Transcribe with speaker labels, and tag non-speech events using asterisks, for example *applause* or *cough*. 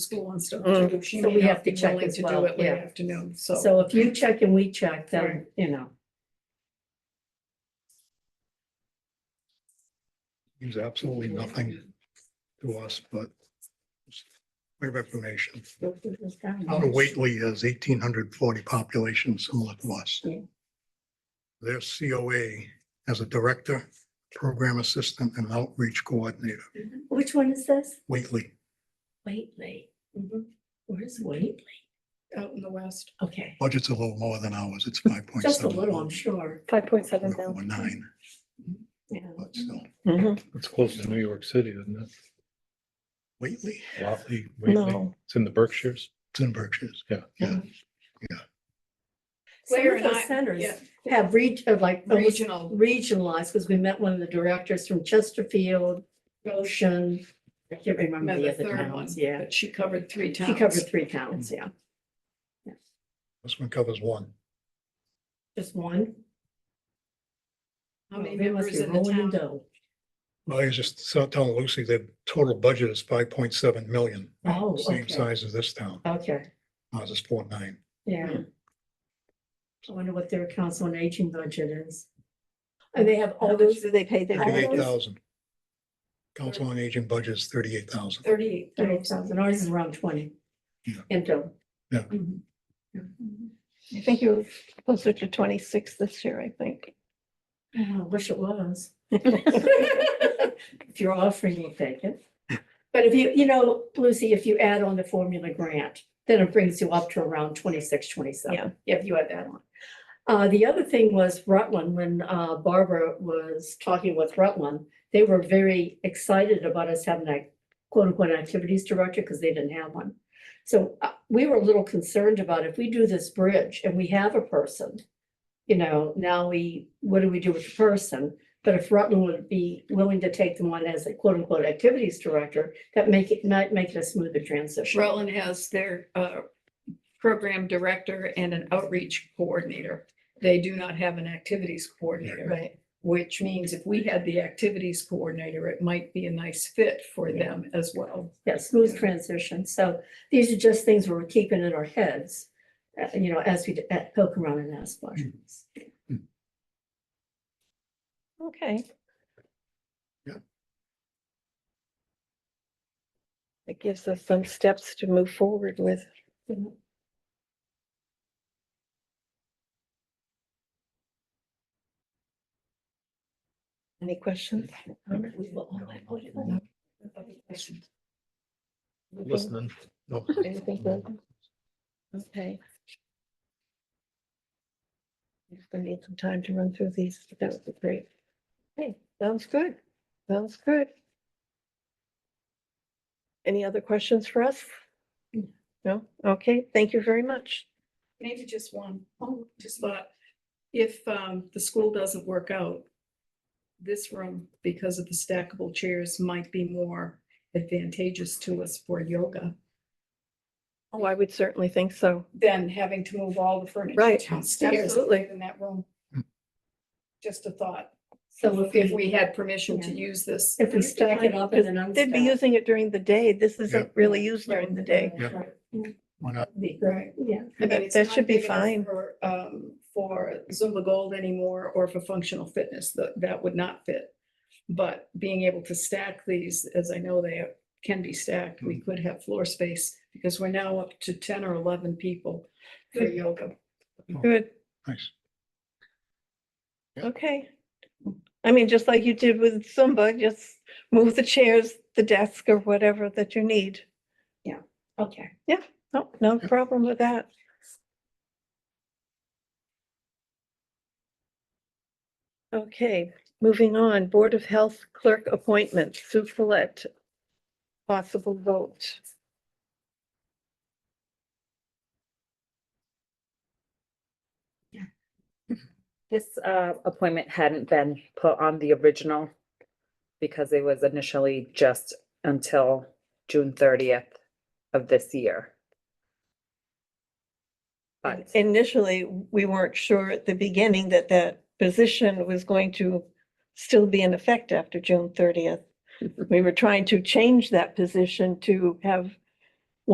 Speaker 1: school and stuff.
Speaker 2: Mm.
Speaker 1: too. She
Speaker 3: So
Speaker 1: may
Speaker 3: we
Speaker 1: not
Speaker 3: have to
Speaker 1: be
Speaker 3: check
Speaker 1: willing
Speaker 3: as
Speaker 1: to do
Speaker 3: well,
Speaker 1: it late
Speaker 3: yeah.
Speaker 1: Afternoon, so.
Speaker 3: So if you check and we check, then, you know,
Speaker 4: means absolutely nothing to us, but clear information. Town of Whately has eighteen hundred forty population similar to us.
Speaker 3: Yeah.
Speaker 4: Their COA has a director, program assistant, and outreach coordinator,
Speaker 3: which one is this? Mm-hmm.
Speaker 4: Whately.
Speaker 3: Waitley.
Speaker 1: Mhm.
Speaker 3: Where's Waitley?
Speaker 1: Out in the west.
Speaker 3: Okay,
Speaker 4: Budget's a little lower than ours. It's five point
Speaker 3: just a
Speaker 4: seven.
Speaker 3: little, I'm sure.
Speaker 2: Five point seven
Speaker 4: Or nine,
Speaker 3: Yeah.
Speaker 4: but still.
Speaker 2: thousand.
Speaker 5: It's close to New York City, isn't
Speaker 4: Whately,
Speaker 5: it? Watley, Whately.
Speaker 2: No,
Speaker 5: It's in the Berkshires.
Speaker 4: it's in Berkshires.
Speaker 5: Yeah.
Speaker 4: Yeah.
Speaker 3: Some
Speaker 1: Claire
Speaker 3: of
Speaker 1: and I-
Speaker 3: those centers
Speaker 1: yeah.
Speaker 3: have reach, uh, like almost
Speaker 1: Regional,
Speaker 3: regionalized, because we met one of the directors from Chesterfield, Goshen. I can't remember
Speaker 1: remember
Speaker 3: the
Speaker 1: the
Speaker 3: other
Speaker 1: third one,
Speaker 3: towns, yeah.
Speaker 1: but she covered three towns.
Speaker 3: She covered three towns, yeah.
Speaker 4: This one covers one.
Speaker 3: Just one.
Speaker 1: How many
Speaker 3: They must
Speaker 1: members
Speaker 3: be
Speaker 1: in the
Speaker 3: rolling
Speaker 1: town?
Speaker 3: in dough.
Speaker 4: I was just so- telling Lucy, their total budget is five point seven million.
Speaker 3: Oh,
Speaker 4: Same
Speaker 3: okay.
Speaker 4: size as this town.
Speaker 3: Okay,
Speaker 4: Ours is four nine.
Speaker 3: yeah. I wonder what their council on aging budget is. And Oh, they have all those,
Speaker 2: do they pay their
Speaker 4: Thirty-eight
Speaker 2: bills?
Speaker 4: thousand. Council on Aging budget is thirty-eight thousand.
Speaker 1: Thirty-eight
Speaker 3: thirty
Speaker 1: thousand.
Speaker 3: thousand, ours is around twenty.
Speaker 4: Yeah.
Speaker 3: And *laughs* dough.
Speaker 2: I think you're closer to twenty-six this year, I think.
Speaker 3: I wish it was. If you're offering, we'll take it. But if you, you know, Lucy, if you add on the formula grant, then it brings you up to around twenty-six, twenty-seven, if you add that on. Uh, the other thing was Rutland, when uh, Barbara was talking with Rutland, they were very excited about us having that quote-unquote activities director, because they didn't have one. So uh, we were a little concerned about if we do this bridge and we have a person, you know, now we, what do we do with the person? But if Rutland would be willing to take them on as a quote unquote activities director, that make it, might make it a smoother transition.
Speaker 1: Rutland has their uh, program director and an outreach coordinator. They do not have an activities coordinator. Right. Which means if we had the activities coordinator, it might be a nice fit for
Speaker 3: Yeah.
Speaker 1: them as well.
Speaker 3: Yeah, smooth transition. So these are just things we're keeping in our heads, uh, you know, as we d- uh, poke around and ask questions.
Speaker 2: Okay.
Speaker 4: Yeah.
Speaker 2: It gives us some steps to move forward with. Any questions?
Speaker 3: We will all-
Speaker 2: Anything-
Speaker 5: Listening. No.
Speaker 2: anything further? Okay. Just gonna need some time to run through these. but That would be great. Hey, sounds good. Sounds good. Any other questions for us? No? Okay, thank you very much.
Speaker 1: Maybe just one, just thought, if um, the school doesn't work out, this room, because of the stackable chairs, might be more advantageous to us for yoga
Speaker 2: Oh, I would certainly think so.
Speaker 1: than having to move all the furniture
Speaker 2: Right,
Speaker 1: downstairs
Speaker 2: absolutely.
Speaker 1: in that room. Just a thought,
Speaker 3: So if
Speaker 1: if
Speaker 3: we,
Speaker 1: we had permission to use this.
Speaker 3: if we stack it up and then unstack.
Speaker 2: They'd be using it during the day. This
Speaker 4: Yeah.
Speaker 2: isn't really used during the day.
Speaker 4: Yeah. Why not?
Speaker 3: Be great, yeah.
Speaker 1: I mean,
Speaker 2: That-
Speaker 1: it's
Speaker 2: that
Speaker 1: not
Speaker 2: should be
Speaker 1: big enough
Speaker 2: fine.
Speaker 1: For um, for Zumba Gold anymore or for functional fitness, that that would not fit. But being able to stack these, as I know they can be stacked, we could have floor space because we're now up to ten or eleven people for
Speaker 2: Good.
Speaker 1: yoga.
Speaker 2: Good.
Speaker 4: Nice. Yeah.
Speaker 2: Okay. I mean, just like you did with Zumba, just move the chairs, the desk or whatever that you need.
Speaker 3: Okay.
Speaker 2: No, no problem with that. Okay, moving on, Board of Health Clerk Appointment, Sue Follett. Possible vote.
Speaker 6: This uh, appointment hadn't been put on the original because it was initially just until June thirtieth of this year.
Speaker 2: And
Speaker 6: But
Speaker 2: Initially, we weren't sure at the beginning that that position was going to still be in effect after June thirtieth. We were trying to change that position to have